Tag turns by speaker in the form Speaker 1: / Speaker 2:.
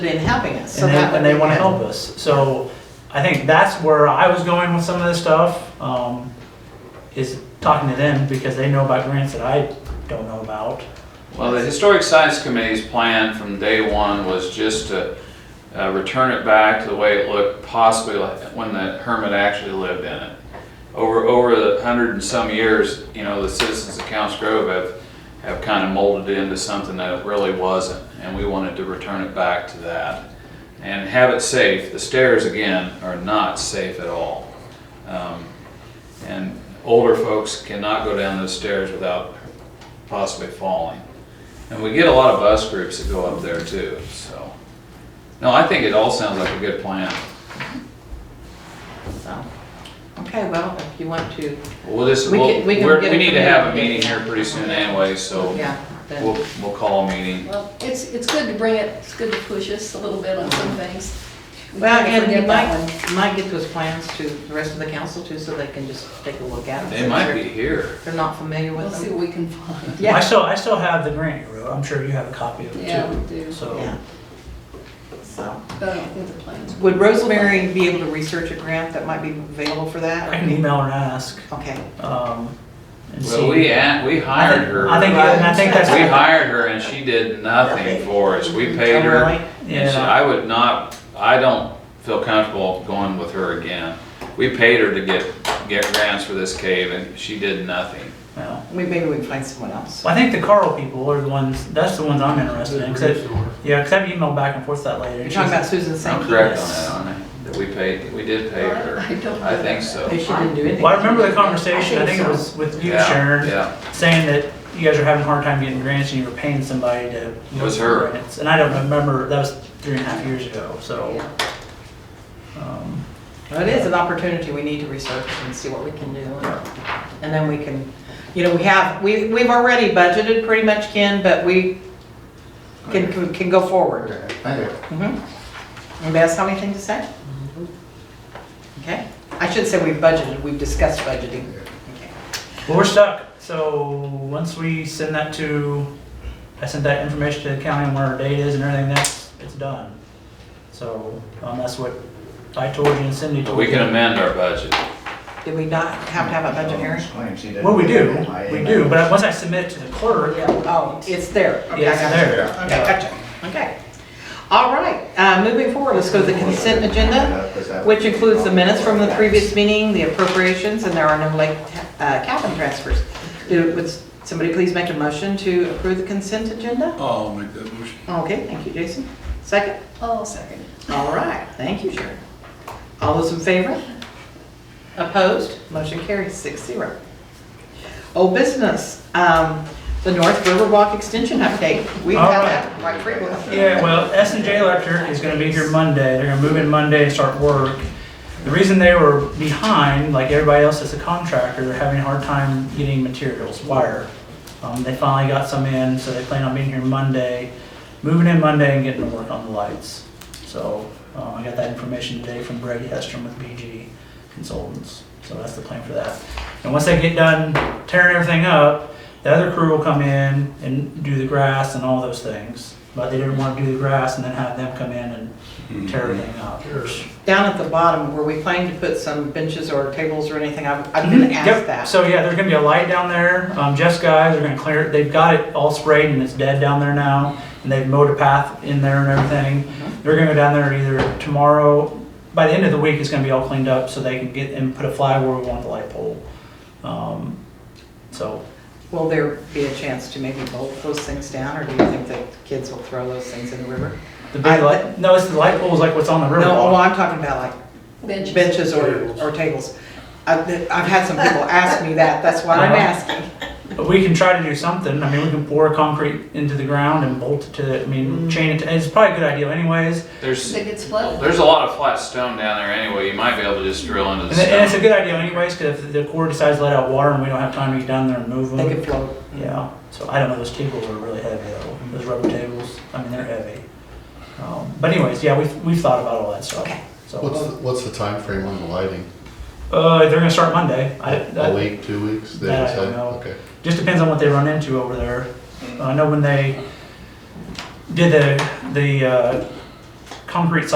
Speaker 1: in helping us. so
Speaker 2: and
Speaker 1: that
Speaker 2: they,
Speaker 1: would
Speaker 2: and they
Speaker 1: be
Speaker 2: want to
Speaker 1: good.
Speaker 2: help us. So I think that's where I was going with some of this stuff, um, is talking to them because they know about grants that I don't know about.
Speaker 3: Well, the Historic Sites Committee's plan from day one was just to uh, return it back to the way it looked possibly like when the hermit actually lived in it. Over, over the hundred and some years, you know, the citizens of Counts Grove have, have kind of molded it into something that it really wasn't. And we wanted to return it back to that and have it safe. The stairs, again, are not safe at all. Um, And older folks cannot go down those stairs without possibly falling. And we get a lot of bus groups that go up there too, so. No, I think it all sounds like a good plan.
Speaker 1: So, Okay, well, if you want to,
Speaker 3: We'll just,
Speaker 1: We
Speaker 3: we'll,
Speaker 1: can- we can
Speaker 3: we're-
Speaker 1: get
Speaker 3: we
Speaker 1: it
Speaker 3: need
Speaker 1: from
Speaker 3: to have a
Speaker 1: here.
Speaker 3: meeting here pretty soon anyway, so
Speaker 1: yeah, then,
Speaker 3: we'll, we'll call a meeting.
Speaker 4: Well, it's, it's good to bring it, it's good to push us a little bit on some things. We
Speaker 1: well,
Speaker 4: can't
Speaker 1: and you
Speaker 4: forget that
Speaker 1: might,
Speaker 4: one.
Speaker 1: might get those plans to the rest of the council too, so they can just take a look at them.
Speaker 3: They might be here.
Speaker 1: They're not familiar
Speaker 4: We'll
Speaker 1: with
Speaker 4: see
Speaker 1: them.
Speaker 4: what we can find.
Speaker 1: Yeah.
Speaker 2: I still, I still have the grant you wrote. I'm sure you have a copy of it
Speaker 4: Yeah,
Speaker 2: too.
Speaker 4: we do,
Speaker 2: So,
Speaker 1: Yeah. So,
Speaker 4: but I don't think the plans.
Speaker 1: would Rosemary be able to research a grant that might be available for
Speaker 2: I
Speaker 1: that?
Speaker 2: can email and ask,
Speaker 1: Okay,
Speaker 2: um, and
Speaker 3: Well,
Speaker 2: see.
Speaker 3: we, at- we hired her.
Speaker 2: I think, and I think that's.
Speaker 3: We hired her and she did nothing for us. We paid her.
Speaker 1: Really?
Speaker 3: And she-
Speaker 2: Yeah,
Speaker 3: I would not, I don't feel comfortable going with her again. We paid her to get, get grants for this cave and she did nothing.
Speaker 2: well,
Speaker 1: We- maybe we can find someone else.
Speaker 2: I think the Carl people are the ones, that's the ones I'm interested in, 'cause it-
Speaker 5: Sure.
Speaker 2: yeah, cause I've emailed back and forth that lady.
Speaker 1: You're
Speaker 2: and
Speaker 1: talking
Speaker 2: she's-
Speaker 1: about Susan
Speaker 3: I'm
Speaker 1: St.
Speaker 3: correct on
Speaker 2: Yes.
Speaker 3: that, aren't I? That we paid, we did pay her.
Speaker 4: I don't
Speaker 3: I think so.
Speaker 1: Maybe she didn't do anything.
Speaker 2: Well, I remember the conversation, I think it
Speaker 1: so.
Speaker 2: was with you,
Speaker 3: Yeah,
Speaker 2: Sharon,
Speaker 3: Yeah,
Speaker 2: saying that you guys were having a hard time getting grants and you were paying somebody to.
Speaker 3: It was her.
Speaker 2: grants. And I don't remember, that was three and a half years ago, so. um,
Speaker 1: Well, It is an opportunity, we need to research and see what we can do. And then we can, you know, we have, we, we've already budgeted pretty much, Ken, but we can, can- can go forward.
Speaker 5: Okay, thank you.
Speaker 1: Mhm. Anybody else have anything to say? Okay, I should say we've budgeted, we've discussed budgeting. Okay.
Speaker 2: Well, we're stuck, so once we send that to, I sent that information to the county on where our date is and everything, that's, it's done. So, um, that's what I told you and Cindy
Speaker 3: but
Speaker 2: told
Speaker 3: we can
Speaker 2: you.
Speaker 3: amend our budget.
Speaker 1: Did we not have to have a budget hearing?
Speaker 2: Well, we do, we do, but once I submit it to the clerk,
Speaker 1: Oh, it's there. Okay, I
Speaker 2: Yes,
Speaker 1: got you.
Speaker 2: there.
Speaker 1: Okay, gotcha, okay. All right, uh, moving forward, let's go to the consent agenda. which includes the minutes from the previous meeting, the appropriations, and there are no late uh, cabin transfers. Do- Would somebody please make a motion to approve the consent agenda?
Speaker 5: I'll make that motion.
Speaker 1: Okay, thank you, Jason. Second?
Speaker 4: Oh, second.
Speaker 1: All right, thank you, Sharon. All those in favor? Opposed? Motion carries six zero. Old business, um, the North Riverwalk Extension update. We've had that quite frequently.
Speaker 2: Yeah, well, S and J Electric is gonna be here Monday, they're gonna move in Monday and start work. The reason they were behind, like everybody else as a contractor, they're having a hard time getting materials, wire. Um, they finally got some in, so they plan on being here Monday, moving in Monday and getting to work on the lights. So, uh, I got that information today from Greg Hestrom with BG Consultants, so that's the plan for that. And once they get done tearing everything up, the other crew will come in and do the grass and all those things. But they didn't want to do the grass and then have them come in and tear everything up.
Speaker 1: Down at the bottom, were we planning to put some benches or tables or anything? I've I've been asked
Speaker 2: Mm-hmm. Yep.
Speaker 1: that.
Speaker 2: So yeah, there's gonna be a light down there. Um, Jeff's guys are gonna clear, it. they've got it all sprayed and it's dead down there now. And they've mowed a path in there and everything. They're gonna go down there either tomorrow, by the end of the week, it's gonna be all cleaned up so they can get and put a flag where we want the light pole. Um, So,
Speaker 1: Will there be a chance to maybe bolt those things down, or do you think that kids will throw those things in the river?
Speaker 2: the
Speaker 1: I-
Speaker 2: big light, no, it's the light poles like what's on the river.
Speaker 1: No, well, I'm talking about like
Speaker 4: Benches.
Speaker 1: benches or, or tables. I've, I've had some people ask me that, that's why I'm
Speaker 2: Uh-huh.
Speaker 1: asking.
Speaker 2: But we can try to do something. I mean, we can pour concrete into the ground and bolt it to, I
Speaker 1: Mm-hmm.
Speaker 2: mean, chain it to, it's probably a good idea anyways.
Speaker 3: There's,
Speaker 4: That gets flooded.
Speaker 3: there's a lot of flat stone down there anyway, you might be able to just drill into
Speaker 2: And, it- and
Speaker 3: the
Speaker 2: it's a
Speaker 3: stone.
Speaker 2: good idea anyways, because if the Corps decides to let out water and we don't have time to get down there and move
Speaker 1: They
Speaker 2: them.
Speaker 1: could float.
Speaker 2: Yeah, so I don't know, those tables are really heavy though, those rubber tables, I mean, they're heavy. Um, But anyways, yeah, we've, we've thought about all that stuff.
Speaker 1: Okay.
Speaker 5: What's,
Speaker 2: So,
Speaker 5: the- what's the time frame on the lighting?
Speaker 2: uh, they're gonna start Monday. I,
Speaker 5: A
Speaker 2: that,
Speaker 5: week, two weeks? They
Speaker 2: that I
Speaker 5: decide?
Speaker 2: don't know.
Speaker 5: Okay.
Speaker 2: just depends on what they run into over there. I know when they did the, the, uh, concrete